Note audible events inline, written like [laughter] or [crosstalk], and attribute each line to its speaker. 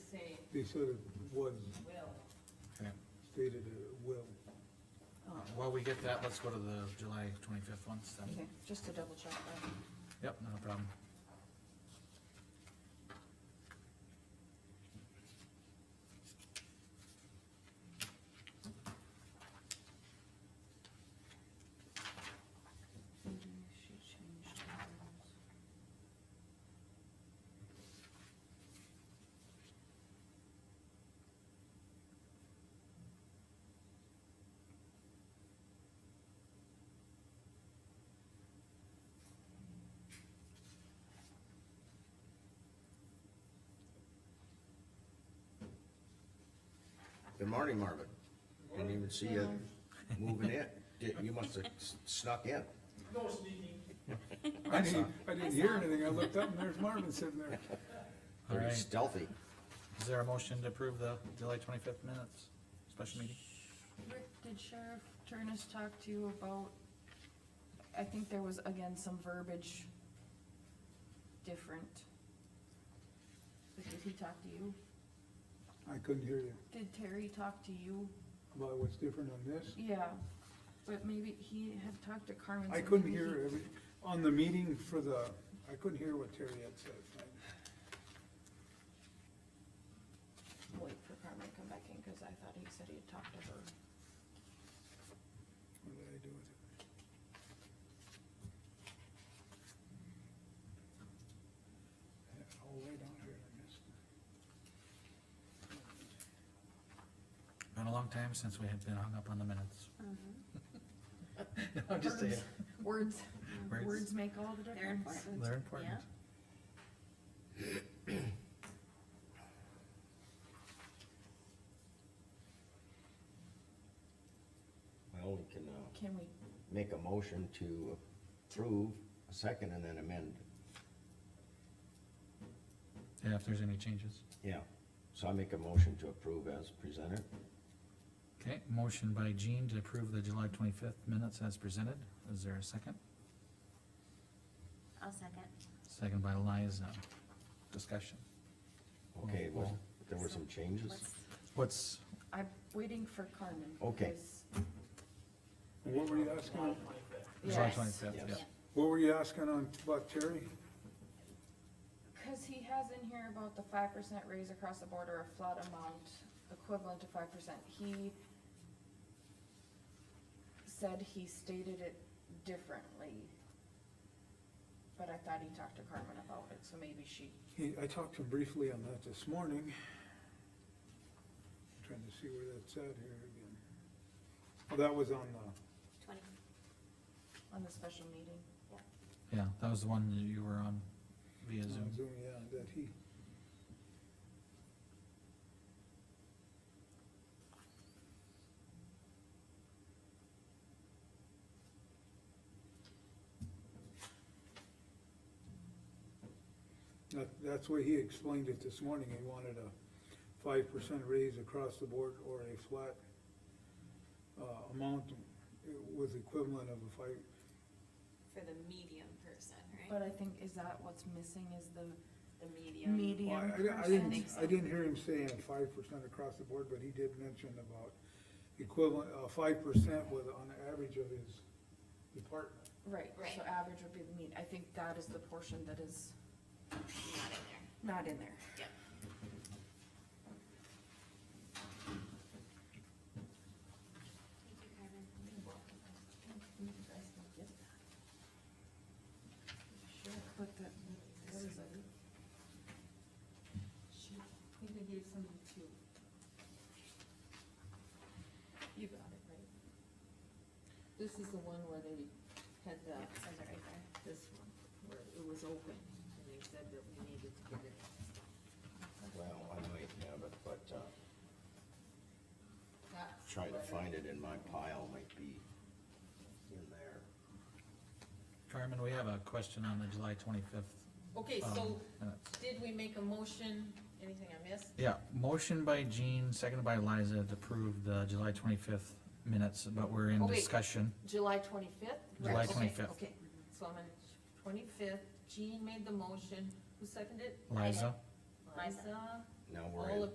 Speaker 1: They sort of wasn't
Speaker 2: Okay.
Speaker 1: stated it well.
Speaker 2: Uh, While we get that, let's go to the July twenty-fifth one, so,
Speaker 3: Okay, just to double check that.
Speaker 2: yep, no problem.
Speaker 3: She changed hers.
Speaker 4: Good morning, Marvin. Didn't even see you moving in. Did- You must have s- snuck in.
Speaker 1: I didn't, I didn't hear anything, I looked up and there's Marvin sitting there.
Speaker 2: All
Speaker 4: Pretty
Speaker 2: right,
Speaker 4: stealthy.
Speaker 2: is there a motion to approve the July twenty-fifth minutes, special meeting?
Speaker 3: Rick, did Sheriff Turnus talk to you about, I think there was again some verbiage different. But Did he talk to you?
Speaker 1: I couldn't hear you.
Speaker 3: Did Terry talk to you?
Speaker 1: About what's different on this?
Speaker 3: Yeah, but maybe he had talked to Carmen. so
Speaker 1: I couldn't
Speaker 3: maybe he-
Speaker 1: hear every, on the meeting for the, I couldn't hear what Terry had said.
Speaker 3: Wait for Carmen to come back in, cause I thought he said he had talked to her.
Speaker 1: What did I do with it? Yeah, All the way down here, Oh, I missed.
Speaker 2: Been a long time since we had been hung up on the minutes.
Speaker 3: Uh-huh.
Speaker 2: [laughs] I'm just saying,
Speaker 1: [laughs]
Speaker 3: Words,
Speaker 2: Words.
Speaker 3: words make all the
Speaker 5: They're
Speaker 3: difference.
Speaker 5: important.
Speaker 2: they're important.
Speaker 5: Yeah.
Speaker 4: Well, we can, uh,
Speaker 3: Can we,
Speaker 4: make a motion to approve, a second, and then amend.
Speaker 2: Yeah, if there's any changes.
Speaker 4: Yeah. So I make a motion to approve as presented.
Speaker 2: Okay, motion by Jean to approve the July twenty-fifth minutes as presented, is there a second?
Speaker 5: I'll second.
Speaker 2: Second by Liza, discussion.
Speaker 4: Okay, well, there were some changes.
Speaker 5: What's-
Speaker 2: What's,
Speaker 3: I'm waiting for Carmen.
Speaker 4: Okay.
Speaker 3: because-
Speaker 1: What were you asking,
Speaker 2: July
Speaker 3: Yes.
Speaker 2: twenty-fifth, yeah.
Speaker 4: Yes.
Speaker 1: what were you asking on, about Terry?
Speaker 3: Cause he has in here about the five percent raise across the board or a flat amount equivalent to five percent, he said he stated it differently. But I thought he talked to Carmen about it, so maybe she,
Speaker 1: He, I talked to him briefly on that this morning. Trying to see where that's at here again. Well, that was on the,
Speaker 5: Twenty.
Speaker 3: on the special meeting.
Speaker 2: Yeah, that was the one that you were on via
Speaker 1: on
Speaker 2: Zoom.
Speaker 1: Zoom, yeah, that he, that, that's where he explained it this morning. He wanted a five percent raise across the board or a flat uh, amount with equivalent of a five,
Speaker 5: For the medium person,
Speaker 3: But I think, is that what's missing is the
Speaker 5: The medium.
Speaker 1: Well,
Speaker 3: medium
Speaker 1: I- I, I
Speaker 3: person?
Speaker 1: didn't, I didn't hear him saying five percent across the board, but he did mention about equivalent, uh, five percent with, on the average of his department.
Speaker 3: Right, so
Speaker 5: Right.
Speaker 3: average would be the mean, I think that is the portion that is
Speaker 5: Not in there.
Speaker 3: not in there.
Speaker 5: Yep. Thank you, Carmen.
Speaker 3: But the, what is it?
Speaker 6: She, I think I gave somebody two. You got it, right? This is the one where they had the,
Speaker 5: Yeah, it says it right there.
Speaker 6: this one, where it was open, and they said that we needed to get it.
Speaker 4: Well, I might have it, but, uh,
Speaker 6: That's
Speaker 4: trying to
Speaker 6: where-
Speaker 4: find it in my pile might be in there.
Speaker 2: Carmen, we have a question on the July twenty-fifth.
Speaker 6: Okay,
Speaker 2: um,
Speaker 6: so
Speaker 2: minutes.
Speaker 6: did we make a motion, anything I missed?
Speaker 2: Yeah, motion by Jean, seconded by Liza to approve the July twenty-fifth minutes, but we're in
Speaker 6: Oh, wait.
Speaker 2: discussion.
Speaker 6: July twenty-fifth?
Speaker 2: July
Speaker 6: Okay,
Speaker 2: 25th.
Speaker 6: Okay, so I'm on twenty-fifth, Jean made the motion, who seconded?
Speaker 2: Liza?
Speaker 6: Liza,
Speaker 4: Now we're in.
Speaker 6: all in